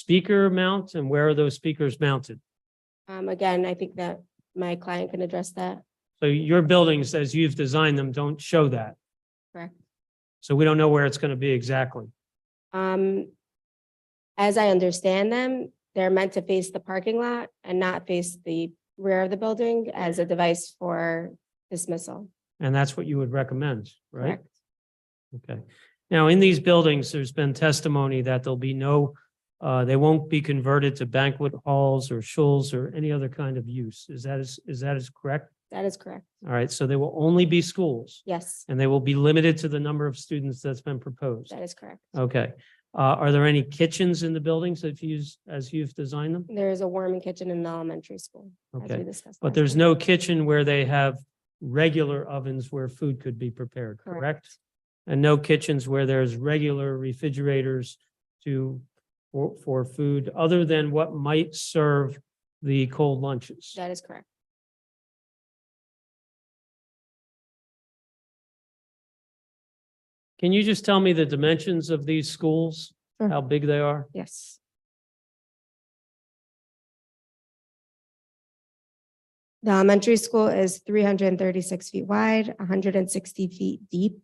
speaker mount and where are those speakers mounted? Um, again, I think that my client can address that. So your buildings, as you've designed them, don't show that. Correct. So we don't know where it's going to be exactly. Um, as I understand them, they're meant to face the parking lot and not face the rear of the building as a device for dismissal. And that's what you would recommend, right? Correct. Okay. Now, in these buildings, there's been testimony that there'll be no, uh, they won't be converted to banquet halls or shuls or any other kind of use. Is that is, is that is correct? That is correct. All right. So they will only be schools Yes, and they will be limited to the number of students that's been proposed. that is correct. Okay. Uh, are there any kitchens in the buildings that you use, as you've designed them? There is a warming kitchen in the elementary school, as we Okay. discussed. But last there's time. no kitchen where they have regular ovens where food could be prepared, correct? And no kitchens where there's regular refrigerators to, for, for food other than what might serve the cold lunches. That is correct. Can you just tell me the dimensions of these schools? Sure. How big they are? Yes. The elementary school is three hundred and thirty-six feet wide, hundred and sixty feet deep.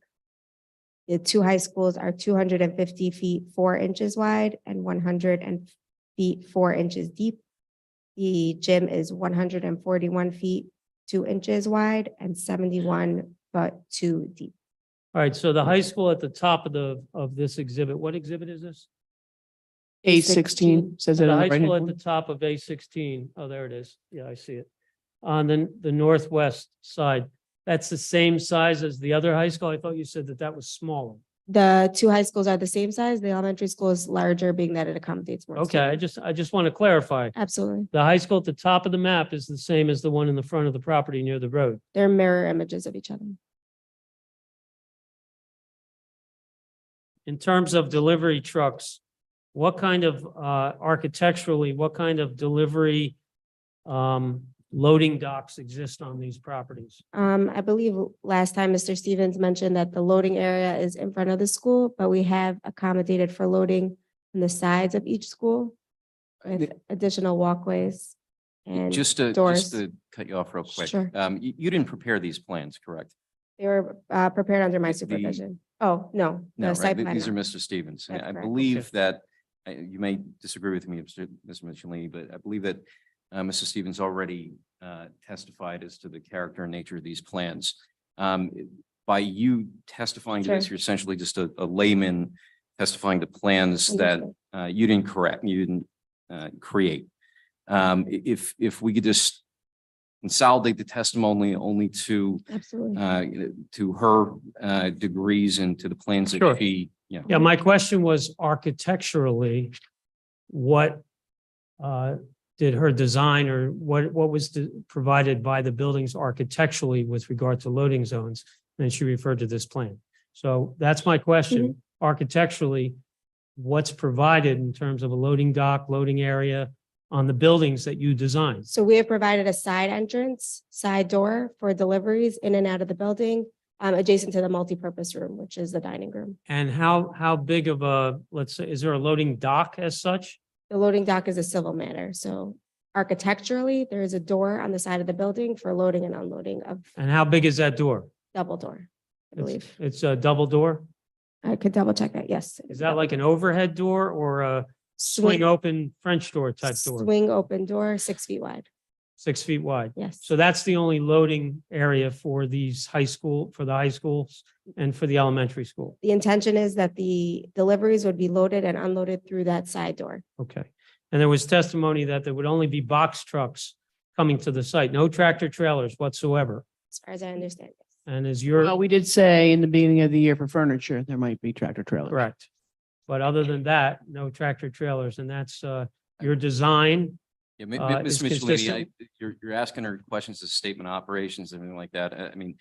The two high schools are two hundred and fifty feet, four inches wide and one hundred and feet, four inches deep. The gym is one hundred and forty-one feet, two inches wide and seventy-one but two deep. All right, so the high school at the top of the, of this exhibit, what exhibit is this? A A16. sixteen says that The on high the right school at the hand. top of A sixteen. Oh, there it is. Yeah, I see it. On the, the northwest side, that's the same size as the other high school. I thought you said that that was smaller. The two high schools are the same size. The elementary school is larger, being that it accommodates more. Okay, students. I just, I just want to clarify. Absolutely. The high school at the top of the map is the same as the one in the front of the property near the road. They're mirror images of each other. In terms of delivery trucks, what kind of, uh, architecturally, what kind of delivery, um, loading docks exist on these properties? Um, I believe last time Mr. Stevens mentioned that the loading area is in front of the school, but we have accommodated for loading on the sides of each school with additional walkways and Just to, doors. just to cut you off real quick. Sure. Um, you, you didn't prepare these plans, correct? they were uh, prepared under my The- supervision. Oh, no. the No, right? site Th- plan. These are Mr. Stevens. And That's I correct. believe that, uh, you may disagree with me, Mr. Mr. Michele, but I believe that, uh, Mr. Stevens already, uh, testified as to the character and nature of these plans. Um, by you testifying to this, Sure. you're essentially just a, a layman testifying to plans that Understood. uh, you didn't correct, you didn't, uh, create. Um, i- if, if we could just consolidate the testimony only to, Absolutely. uh, to her, uh, degrees and to the plans Sure. that she, yeah. Yeah, my question was architecturally, what uh, did her design or what, what was the- provided by the buildings architecturally with regard to loading zones? And she referred to this plan. So that's my question. Mm-hmm. Architecturally, what's provided in terms of a loading dock, loading area on the buildings that you designed? So we have provided a side entrance, side door for deliveries in and out of the building, um, adjacent to the multipurpose room, which is the dining room. And how, how big of a, let's say, is there a loading dock as such? The loading dock is a civil matter, so architecturally, there is a door on the side of the building for loading and unloading of And how big is that door? double door, I It's- believe. It's a double door? I could double check that, yes. Is that like an overhead door or a swing Swing, open French door type door, swing open door, six feet wide, six feet wide? yes. So that's the only loading area for these high school, for the high schools and for the elementary school. The intention is that the deliveries would be loaded and unloaded through that side door, Okay. And there was testimony that there would only be box trucks coming to the site, no tractor trailers whatsoever. as far as I understand. And is Well, your, we did say in the beginning of the year for furniture, there might be tractor trailers. correct. But other than that, no tractor trailers. And that's uh, your design. Yeah, mi- uh, mi- Ms. is Mitchell, consistent. I- you're, you're asking her questions of statement of operations, everything like that. I I mean,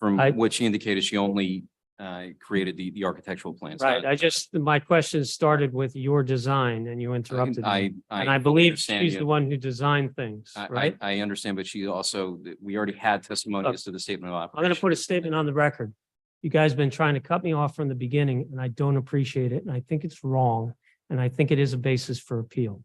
from I- what she indicated, she only uh, created the, the architectural plans. Right. I- I just, my question started with your design and you interrupted me. I, I. And I believe understand she's you. the one who designed things, I- right? I, I understand, but she also, we already had testimony Look, as to the statement of I'm going to operations. put a statement on the record. You guys been trying to cut me off from the beginning and I don't appreciate it. And I think it's wrong. And I think it is a basis for appeal.